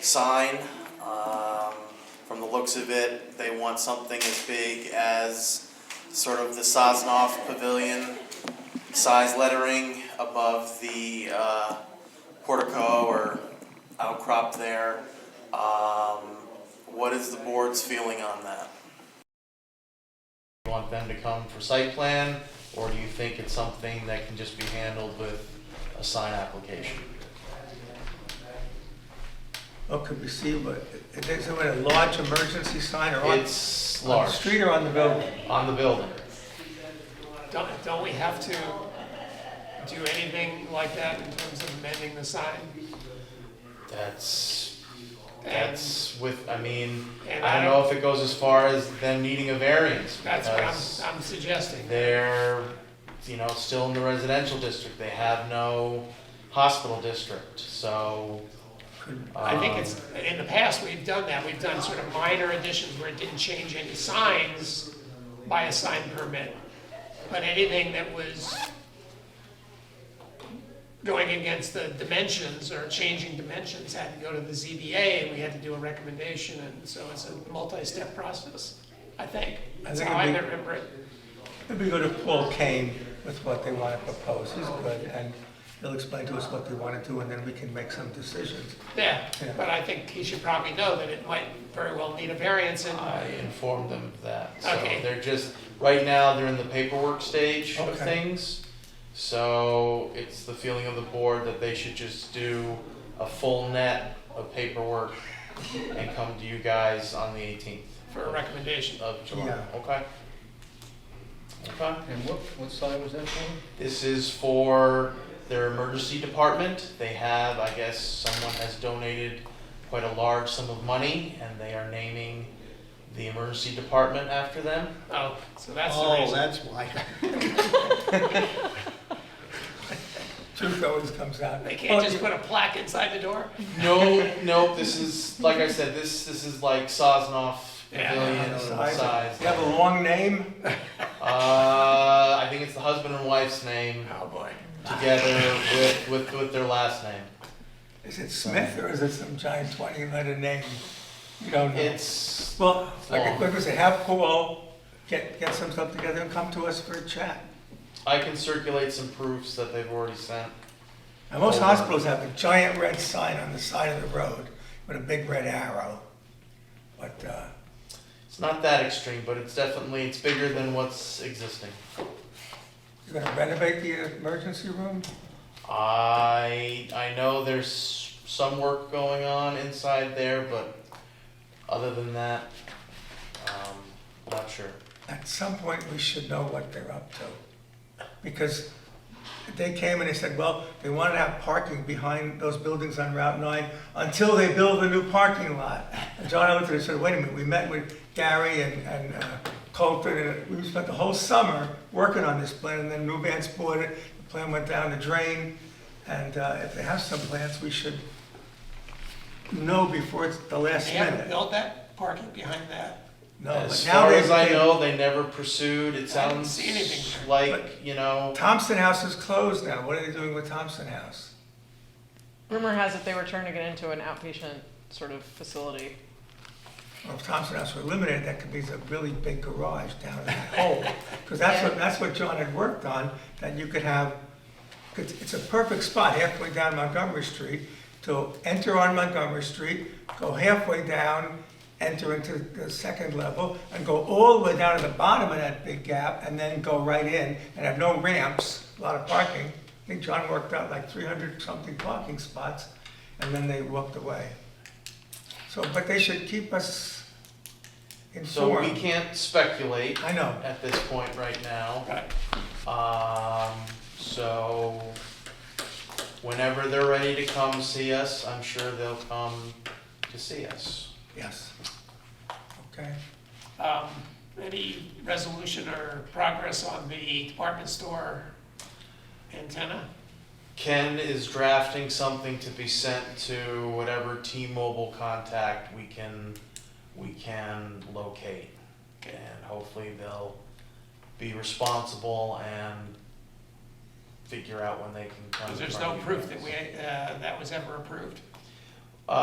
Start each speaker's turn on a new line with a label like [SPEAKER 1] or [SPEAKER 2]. [SPEAKER 1] sign. Um, From the looks of it, they want something as big as sort of the Sosnoff Pavilion size lettering above the uh, portico or outcrop there. Um, What is the board's feeling on that? You want them to come for site plan, or do you think it's something that can just be handled with a sign application?
[SPEAKER 2] Oh, could we see, what, is it a large emergency sign or on?
[SPEAKER 1] It's
[SPEAKER 2] On the
[SPEAKER 1] large,
[SPEAKER 2] street or on the building?
[SPEAKER 1] on the building.
[SPEAKER 3] Don't, don't we have to do anything like that in terms of amending the sign?
[SPEAKER 1] That's,
[SPEAKER 3] And
[SPEAKER 1] that's with, I mean,
[SPEAKER 3] And
[SPEAKER 1] I
[SPEAKER 3] I
[SPEAKER 1] don't know if it goes as far as them needing a variance.
[SPEAKER 3] that's what
[SPEAKER 1] because
[SPEAKER 3] I'm, I'm suggesting.
[SPEAKER 1] They're, you know, still in the residential district, they have no hospital district, so.
[SPEAKER 3] I think
[SPEAKER 1] um,
[SPEAKER 3] it's, in the past, we've done that, we've done sort of minor additions where it didn't change any signs by a sign permit. But anything that was going against the dimensions or changing dimensions had to go to the ZBA, and we had to do a recommendation, and so it's a multi-step process, I think. That's
[SPEAKER 2] think
[SPEAKER 3] how
[SPEAKER 2] it'd
[SPEAKER 3] I
[SPEAKER 2] be-
[SPEAKER 3] remember it.
[SPEAKER 2] Maybe go to Paul Kane with what they want to propose, he's good, and he'll explain to us what they want to do, and then we can make some decisions.
[SPEAKER 3] Yeah,
[SPEAKER 2] Yeah.
[SPEAKER 3] but I think he should probably know that it might very well need a variance and,
[SPEAKER 1] I informed them of that. So
[SPEAKER 3] Okay.
[SPEAKER 1] they're just, right now, they're in the paperwork stage of
[SPEAKER 2] Okay.
[SPEAKER 1] things. So it's the feeling of the board that they should just do a full net of paperwork and come to you guys on the eighteenth
[SPEAKER 3] for a recommendation.
[SPEAKER 1] of July,
[SPEAKER 2] Yeah.
[SPEAKER 1] okay? Okay,
[SPEAKER 4] And what, what side was that for?
[SPEAKER 1] this is for their emergency department. They have, I guess, someone has donated quite a large sum of money and they are naming the emergency department after them.
[SPEAKER 3] Oh, so that's the
[SPEAKER 4] Oh,
[SPEAKER 3] reason.
[SPEAKER 4] that's why.
[SPEAKER 2] Truth always comes out. Oh,
[SPEAKER 3] They can't just put a plaque inside the door?
[SPEAKER 1] No, no, this is, like I said, this, this is like Sosnoff
[SPEAKER 3] Yeah.
[SPEAKER 1] Pavilion size.
[SPEAKER 2] You have a long name?
[SPEAKER 1] Uh, I think it's the husband and wife's name
[SPEAKER 3] Oh, boy.
[SPEAKER 1] together with, with, with their last name.
[SPEAKER 2] Is it Smith or is it some giant twenty-letter name? You don't know.
[SPEAKER 1] It's,
[SPEAKER 2] Well, like I-
[SPEAKER 1] long.
[SPEAKER 2] like I say, have Paul get, get some stuff together and come to us for a chat.
[SPEAKER 1] I can circulate some proofs that they've already sent.
[SPEAKER 2] Now, most
[SPEAKER 1] Over.
[SPEAKER 2] hospitals have a giant red sign on the side of the road with a big red arrow. But, uh,
[SPEAKER 1] It's not that extreme, but it's definitely, it's bigger than what's existing.
[SPEAKER 2] you're gonna renovate the emergency room?
[SPEAKER 1] I, I know there's some work going on inside there, but other than that, um, not sure.
[SPEAKER 2] At some point, we should know what they're up to. Because they came and they said, well, they wanted to have parking behind those buildings on Route 9 until they build a new parking lot. And John Oakley said, wait a minute, we met with Gary and, and uh, Colton, and we spent the whole summer working on this plan, and then New Vance bought it, the plan went down the drain. And uh, if they have some plans, we should know before it's the last
[SPEAKER 3] They haven't
[SPEAKER 2] minute.
[SPEAKER 3] built that parking behind that?
[SPEAKER 2] No, Oh, but
[SPEAKER 1] As
[SPEAKER 2] now
[SPEAKER 1] far
[SPEAKER 2] they-
[SPEAKER 1] as I
[SPEAKER 2] they-
[SPEAKER 1] know, they never pursued, it
[SPEAKER 3] I didn't
[SPEAKER 1] sounds
[SPEAKER 3] see anything
[SPEAKER 1] like, you know,
[SPEAKER 2] Thompson House is closed now. What are they doing with Thompson House?
[SPEAKER 5] Rumor has it they were turning it into an outpatient sort of facility.
[SPEAKER 2] Well, if Thompson House were eliminated, that could be a really big garage down in that hole. Because that's what, that's what John had worked on, that you could have, 'cause it's a perfect spot halfway down Montgomery Street to enter on Montgomery Street, go halfway down, enter into the second level, and go all the way down to the bottom of that big gap, and then go right in, and have no ramps, a lot of parking. I think John worked out like three hundred something parking spots, and then they walked away. So, but they should keep us
[SPEAKER 1] so we
[SPEAKER 2] informed.
[SPEAKER 1] can't speculate
[SPEAKER 2] I know.
[SPEAKER 1] at this point right now.
[SPEAKER 3] Right.
[SPEAKER 1] Um, so whenever they're ready to come see us, I'm sure they'll come to see us.
[SPEAKER 2] Yes. Okay.
[SPEAKER 3] Um, Any resolution or progress on the department store antenna?
[SPEAKER 1] Ken is drafting something to be sent to whatever T-Mobile contact we can, we can locate.
[SPEAKER 3] Okay.
[SPEAKER 1] And hopefully they'll be responsible and figure out when they can come.
[SPEAKER 3] Because there's
[SPEAKER 1] in front
[SPEAKER 3] no
[SPEAKER 1] of you
[SPEAKER 3] proof
[SPEAKER 1] guys.
[SPEAKER 3] that we, uh, that was ever approved.